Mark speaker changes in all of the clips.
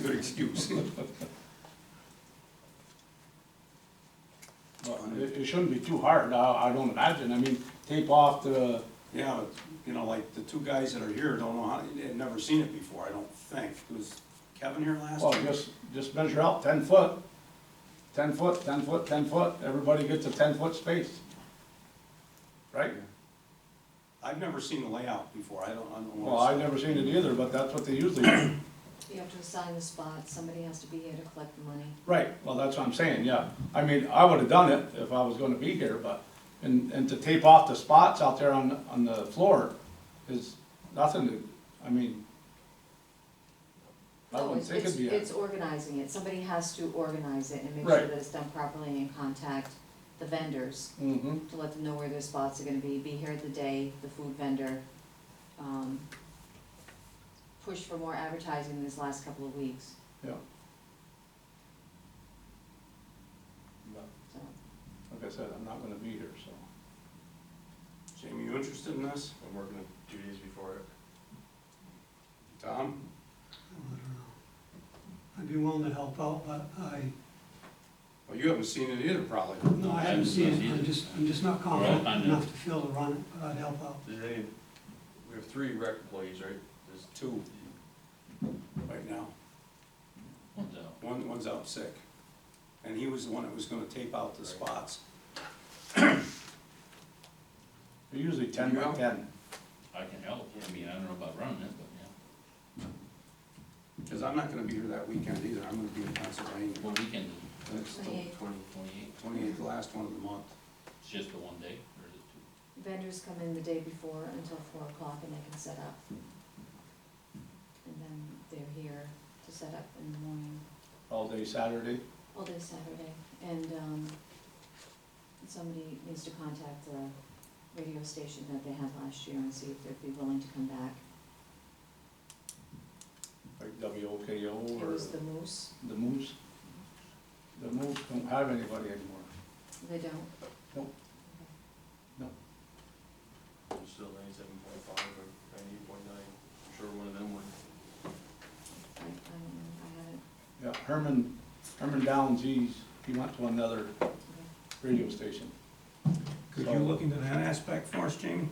Speaker 1: good excuse.
Speaker 2: Well, It, it shouldn't be too hard, I, I don't imagine, I mean, tape off the,
Speaker 1: Yeah, you know, like the two guys that are here don't know how, they've never seen it before, I don't think. Was Kevin here last?
Speaker 2: well,
Speaker 1: time?
Speaker 2: just, just measure out ten foot. Ten foot, ten foot, ten foot, everybody gets a ten foot space. Right?
Speaker 1: I've never seen the layout before, I don't, I don't know.
Speaker 2: Well, I've never seen it either, but that's what they usually do.
Speaker 3: You have to assign the spot, somebody has to be here to collect the money.
Speaker 2: Right, well, that's what I'm saying, yeah. I mean, I would've done it if I was gonna be here, but, and, and to tape off the spots out there on, on the floor is nothing to, I mean, I wouldn't
Speaker 3: It's-
Speaker 2: think it'd be, a-
Speaker 3: It's organizing it, somebody has to organize it and make sure
Speaker 2: Right.
Speaker 3: that it's done properly and contact the vendors
Speaker 2: mhm,
Speaker 3: to let them know where their spots are gonna be, be here the day, the food vendor. um, Push for more advertising this last couple of weeks,
Speaker 2: yeah. But,
Speaker 3: so.
Speaker 2: Like I said, I'm not gonna be here, so.
Speaker 1: Jamie, you interested in this?
Speaker 4: I'm working two days before it.
Speaker 1: Tom?
Speaker 5: I don't know. I'd be willing to help out, but I,
Speaker 1: Well, you haven't seen it either, probably.
Speaker 5: no, I haven't seen it, I'm just, I'm just not confident
Speaker 6: Right, I know.
Speaker 5: enough to feel to run it, but I'd help out.
Speaker 4: There's any, we have three rec employees, right? There's
Speaker 1: Two right now.
Speaker 6: One's out.
Speaker 1: One, one's out sick. And he was the one that was gonna tape out the spots.
Speaker 2: They're usually ten by
Speaker 1: Yeah.
Speaker 2: ten.
Speaker 6: I can help, I mean, I don't know about running it, but yeah.
Speaker 1: Cause I'm not gonna be here that weekend either, I'm gonna be in Pennsylvania.
Speaker 6: What weekend is it?
Speaker 1: That's the
Speaker 3: Twenty-eight.
Speaker 4: twenty.
Speaker 6: Twenty-eight?
Speaker 1: twenty-eighth, the last one of the month.
Speaker 6: It's just the one day, or is it two?
Speaker 3: Vendors come in the day before until four o'clock and they can set up. And then they're here to set up in the morning,
Speaker 2: all day Saturday.
Speaker 3: all day Saturday. And, um, somebody needs to contact the radio station that they had last year and see if they'd be willing to come back.
Speaker 2: Like WOKO
Speaker 3: It
Speaker 2: or
Speaker 3: was the Moose,
Speaker 2: the Moose. The Moose don't have anybody anymore.
Speaker 3: they don't,
Speaker 4: It's still ninety-seven point five or ninety-eight point nine. I'm sure one of them went.
Speaker 3: I, I don't know, I haven't,
Speaker 2: Yeah, Herman, Herman Downs, he's, he went to another radio station.
Speaker 1: Could you look into that aspect for us, Jamie?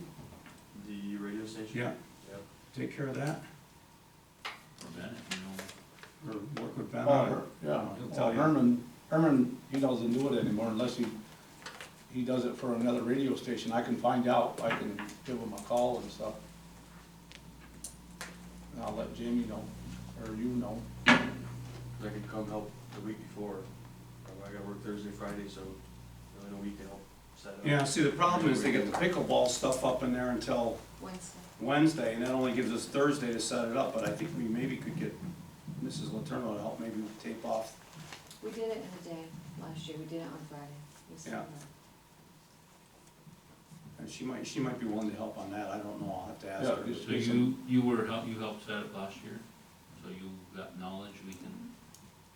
Speaker 4: The radio station?
Speaker 1: Yeah,
Speaker 4: Yep.
Speaker 1: take care of that,
Speaker 6: Or Bennett, you know?
Speaker 1: or work with Ben
Speaker 2: Oh,
Speaker 1: on it.
Speaker 2: Her- Yeah,
Speaker 1: He'll
Speaker 2: well,
Speaker 1: tell you.
Speaker 2: Herman, Herman, he doesn't do it anymore unless he, he does it for another radio station. I can find out, I can give him a call and stuff. And I'll let Jamie know, or you know.
Speaker 4: I could come help the week before. Um, I gotta work Thursday, Friday, so in a week to help set up.
Speaker 1: Yeah, see, the problem is they get the pickleball stuff up in there until
Speaker 3: Wednesday.
Speaker 1: Wednesday, and that only gives us Thursday to set it up, but I think we maybe could get Mrs. Letourneau to help maybe tape off.
Speaker 3: We did it in a day last year, we did it on Friday. We set it
Speaker 1: Yeah.
Speaker 3: up.
Speaker 1: And she might, she might be willing to help on that, I don't know, I'll have to ask
Speaker 2: Yeah,
Speaker 1: her.
Speaker 2: just-
Speaker 6: So you, you were, help. you helped set it last year, so you got knowledge, we can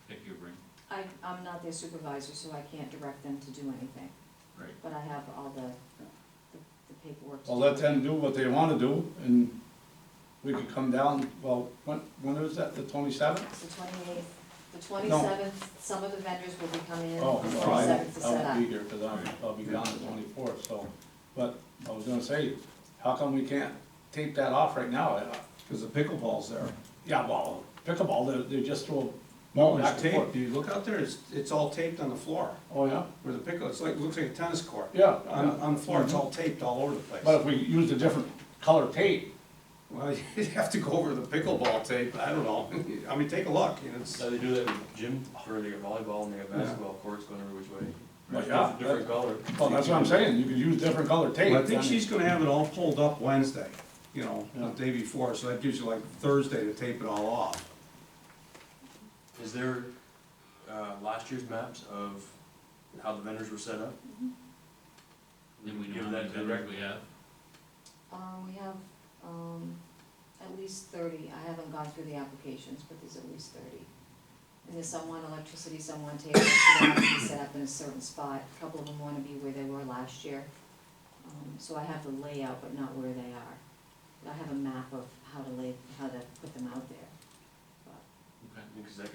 Speaker 6: pick your brain.
Speaker 3: I, I'm not their supervisor, so I can't direct them to do anything.
Speaker 6: Right.
Speaker 3: But I have all the, the the paperwork. to
Speaker 2: Well,
Speaker 3: do.
Speaker 2: let them do what they wanna do, and we could come down, well, when, when is that, the twenty-seventh?
Speaker 3: It's the twenty-eighth, the twenty-seventh, some of the vendors will be coming in
Speaker 2: Oh,
Speaker 3: on the
Speaker 2: well, I
Speaker 3: twenty-seventh to
Speaker 2: I
Speaker 3: set
Speaker 2: won't be
Speaker 3: up.
Speaker 2: here, cause I'll, I'll be gone the twenty-fourth, so, but I was gonna say, how come we can't tape that off right now? Uh,
Speaker 1: Because the pickleball's there.
Speaker 2: Yeah, well, pickleball, they, they just throw.
Speaker 1: Well,
Speaker 2: back
Speaker 1: there's
Speaker 2: and
Speaker 1: tape,
Speaker 2: forth.
Speaker 1: do you look out there, it's, it's all taped on the floor,
Speaker 2: Oh, yeah,
Speaker 1: where the pickle, it's like, looks like a tennis court.
Speaker 2: yeah,
Speaker 1: On,
Speaker 2: yeah.
Speaker 1: on the floor, it's all taped all over the place.
Speaker 2: but if we used a different color tape,
Speaker 1: Well, you'd have to go over the pickleball tape, I don't know, I mean, take a look, you know, it's,
Speaker 4: So they do that with gym, or they got volleyball and they got basketball courts going every which way.
Speaker 2: Well, yeah,
Speaker 4: Different color.
Speaker 2: well, that's what I'm saying, you could use different color tape.
Speaker 1: Well, I think
Speaker 2: then-
Speaker 1: she's gonna have it all pulled up Wednesday, you know, the
Speaker 2: Yeah.
Speaker 1: day before, so that gives you like Thursday to tape it all off.
Speaker 4: Is there, uh, last year's maps of how the vendors were set up?
Speaker 3: Mm-hmm.
Speaker 6: Then we know
Speaker 4: Give
Speaker 6: how many
Speaker 4: that to the rec.
Speaker 6: vendors we have.
Speaker 3: Um, we have, um, at least thirty, I haven't gone through the applications, but there's at least thirty. And there's some want electricity, some want tables, so they have to be set up in a certain spot, a couple of them wanna be where they were last year. Um, so I have the layout, but not where they are. But I have a map of how to lay, how to put them out there.
Speaker 6: Okay.
Speaker 4: Because that